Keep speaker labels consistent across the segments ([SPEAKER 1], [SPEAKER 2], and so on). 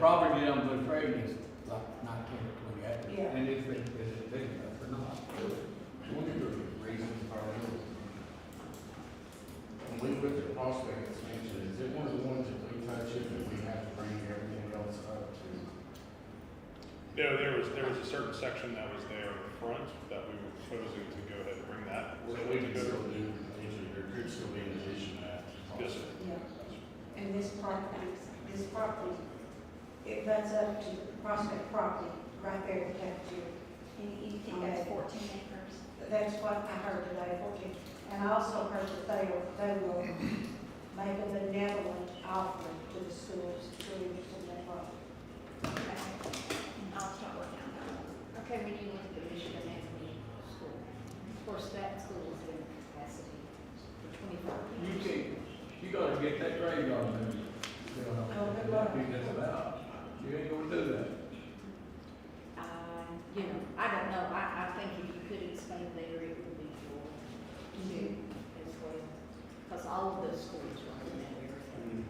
[SPEAKER 1] Property down Blue Prairie is like nineteen or twenty acres.
[SPEAKER 2] Yeah.
[SPEAKER 3] And if it, is it big enough or not?
[SPEAKER 4] One of the reasons for our little- when we put the prospect expansion, is it one of the ones that we touch it that we have to bring everything else up to?
[SPEAKER 5] No, there was, there was a certain section that was there in front that we were proposing to go ahead and bring that.
[SPEAKER 4] So we can still do, there could still be an addition at.
[SPEAKER 5] Yes, sir.
[SPEAKER 2] And this property, this property, it runs up to Prospect property, right there in Cafeteria.
[SPEAKER 6] You you
[SPEAKER 7] Um,
[SPEAKER 6] think that's fourteen acres?
[SPEAKER 2] That's what I heard today, okay. And I also heard that they will, they will make a benevolent offering to the schools, students and that property.
[SPEAKER 6] Okay. I'll start working on that one. Okay, we need one for Michigan Avenue School. Of course, that school is in capacity for twenty-four
[SPEAKER 1] You
[SPEAKER 6] years.
[SPEAKER 1] can't, you gotta get that graveyard moved. You know,
[SPEAKER 2] Oh,
[SPEAKER 1] I
[SPEAKER 2] good luck.
[SPEAKER 1] think that's about, you ain't gonna do that.
[SPEAKER 6] Uh, you know, I don't know, I, I think if you could expand later, it would be for two as well. Because all of those schools are in that area.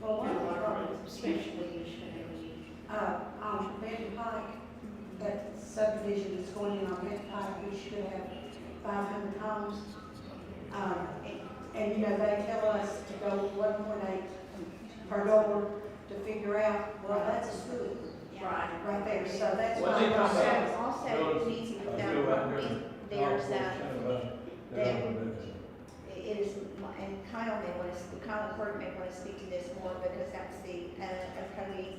[SPEAKER 2] Well, one of the properties,
[SPEAKER 6] Especially Michigan Avenue.
[SPEAKER 2] uh, on Benton Pike, that subdivision that's going in on Benton Pike, we should have five hundred homes. Um, and- and, you know, they tell us to go one point eight per door to figure out, well, that's a school
[SPEAKER 6] Right.
[SPEAKER 2] right there, so that's.
[SPEAKER 1] Well,
[SPEAKER 2] not
[SPEAKER 1] they come
[SPEAKER 2] possible.
[SPEAKER 1] back.
[SPEAKER 7] So also it needs to be
[SPEAKER 1] I
[SPEAKER 7] done,
[SPEAKER 1] feel like
[SPEAKER 7] if
[SPEAKER 1] they're-
[SPEAKER 7] there's a,
[SPEAKER 1] They're not gonna do that.
[SPEAKER 7] it is, and Kyle may want to, Kyle Clark may want to speak to this more because that's the, uh, Ocoee,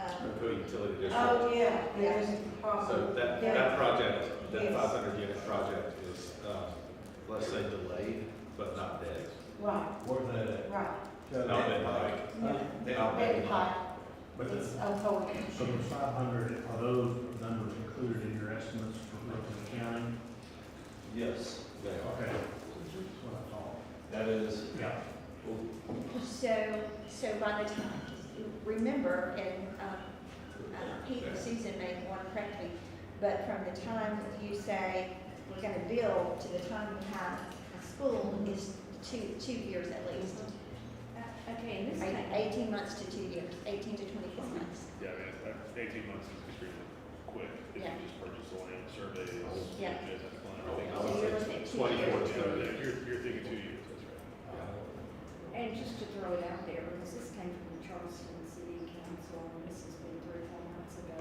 [SPEAKER 7] um,
[SPEAKER 8] Ocoee Utility District.
[SPEAKER 2] Oh, yeah, there's a
[SPEAKER 8] So
[SPEAKER 2] problem.
[SPEAKER 8] that,
[SPEAKER 2] Yeah.
[SPEAKER 8] that project, that
[SPEAKER 2] Yes.
[SPEAKER 8] five hundred unit project is, um, let's say delayed, but not dead.
[SPEAKER 2] Right,
[SPEAKER 3] Where's that at?
[SPEAKER 2] right.
[SPEAKER 8] Not dead, like,
[SPEAKER 2] No,
[SPEAKER 8] not
[SPEAKER 2] Benton
[SPEAKER 8] dead.
[SPEAKER 2] Pike
[SPEAKER 9] But
[SPEAKER 2] is
[SPEAKER 9] the,
[SPEAKER 2] a whole.
[SPEAKER 9] so the five hundred, are those numbers included in your estimates for Brooklyn County?
[SPEAKER 8] Yes, they are.
[SPEAKER 9] Okay. That's what I thought.
[SPEAKER 8] That is,
[SPEAKER 9] Yeah.
[SPEAKER 7] so, so by the time, remember, and, um, uh, Pete and Susan may want to correct me, but from the time that you say, we're gonna build to the time we have a school is two, two years at least.
[SPEAKER 6] Uh, Okay, and this
[SPEAKER 7] Right,
[SPEAKER 6] thing,
[SPEAKER 7] Eighteen months to two years, eighteen to twenty-four months,
[SPEAKER 5] Yeah, I mean, it's like eighteen months is extremely quick. If you
[SPEAKER 7] Yeah.
[SPEAKER 5] just purchase the land, survey it, you
[SPEAKER 7] Yeah.
[SPEAKER 5] guys have to plan everything.
[SPEAKER 8] I
[SPEAKER 7] So you're
[SPEAKER 8] would
[SPEAKER 7] looking
[SPEAKER 8] say
[SPEAKER 7] at two
[SPEAKER 8] twenty-four to
[SPEAKER 7] years.
[SPEAKER 5] Yeah,
[SPEAKER 8] thirty.
[SPEAKER 5] yeah, You're, you're thinking two years, that's right.
[SPEAKER 6] and just to throw it out there, because this came from Charleston City Council, and this has been three, or four months ago,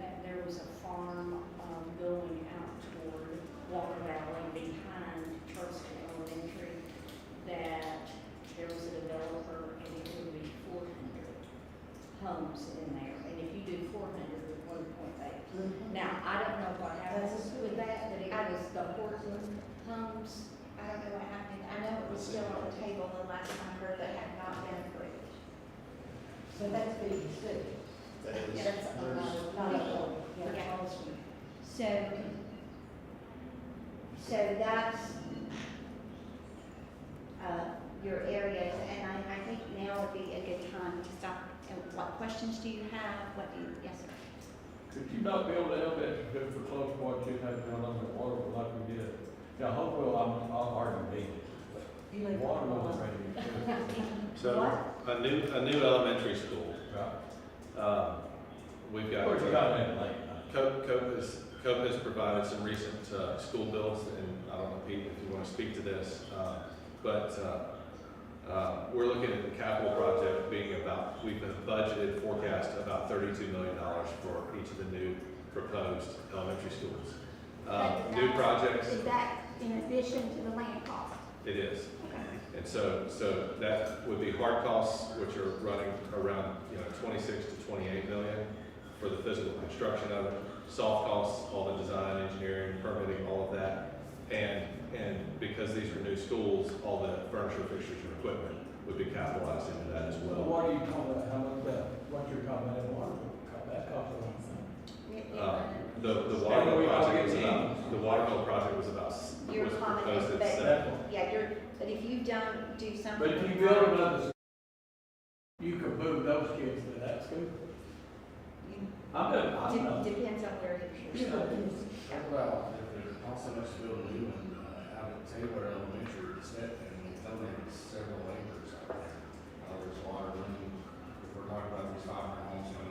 [SPEAKER 6] that there was a farm, um, going out toward Walker Valley behind Charleston Elementary, that there was a developer, and it would be four hundred homes in there, and if you do four hundred, it's one point eight Now, I don't know what happens with that, but it was the Horton homes.
[SPEAKER 7] I don't know what happened, I know it was still on the table the last time, but it had not been approved.
[SPEAKER 2] So that's being considered.
[SPEAKER 4] That is-
[SPEAKER 7] Yeah, that's a lot of-
[SPEAKER 2] Not a whole, yeah.
[SPEAKER 7] Yeah. So, so that's, uh, your areas, and I, I think now would be a good time to stop. And what questions do you have, what do you, yes, sir?
[SPEAKER 1] Could you not build an elevator to for close water, you have to along the water like we did? Now, hopefully, I'm, I'm hard to beat.
[SPEAKER 2] You live-
[SPEAKER 1] Water was ready,
[SPEAKER 8] So, a new, a new elementary school,
[SPEAKER 1] right?
[SPEAKER 8] um, we've got.
[SPEAKER 1] Of course, you got that late.
[SPEAKER 8] Cope, Cope has, Cope has provided some recent, uh, school builds, and I don't know, Pete, if you wanna speak to this, uh, but, uh, uh, we're looking at the capital project being about, we've been budgeted forecast about thirty-two million dollars for each of the new proposed elementary schools. Uh, new projects,
[SPEAKER 6] Is that in addition to the land cost?
[SPEAKER 8] it is,
[SPEAKER 6] Okay.
[SPEAKER 8] and so, so that would be hard costs, which are running around, you know, twenty-six to twenty-eight million for the physical construction of it. Soft costs, all the design, engineering, permitting, all of that. And, and because these are new schools, all the furniture, fixtures, and equipment would be capitalized into that as
[SPEAKER 1] Well,
[SPEAKER 8] well.
[SPEAKER 1] what are you talking about, how much that, what you're talking about, that water, cut that off a little
[SPEAKER 8] Uh, The, the Waterville project was about, the Waterville project was about, s-
[SPEAKER 7] Your
[SPEAKER 8] was
[SPEAKER 7] comment is
[SPEAKER 8] proposed at
[SPEAKER 7] that-
[SPEAKER 8] seven.
[SPEAKER 7] Yeah, you're, but if you don't do something.
[SPEAKER 1] But if you build another, s- you could move those kids to that school. I'm done, I'm
[SPEAKER 7] de-
[SPEAKER 1] done.
[SPEAKER 7] Depends on where you're.
[SPEAKER 1] Yeah.
[SPEAKER 4] How about if there's also us build a new one, uh, out at Taylor Elementary, it's that, and it's only several acres out there. Uh, there's water running, we're talked about these five hundred homes in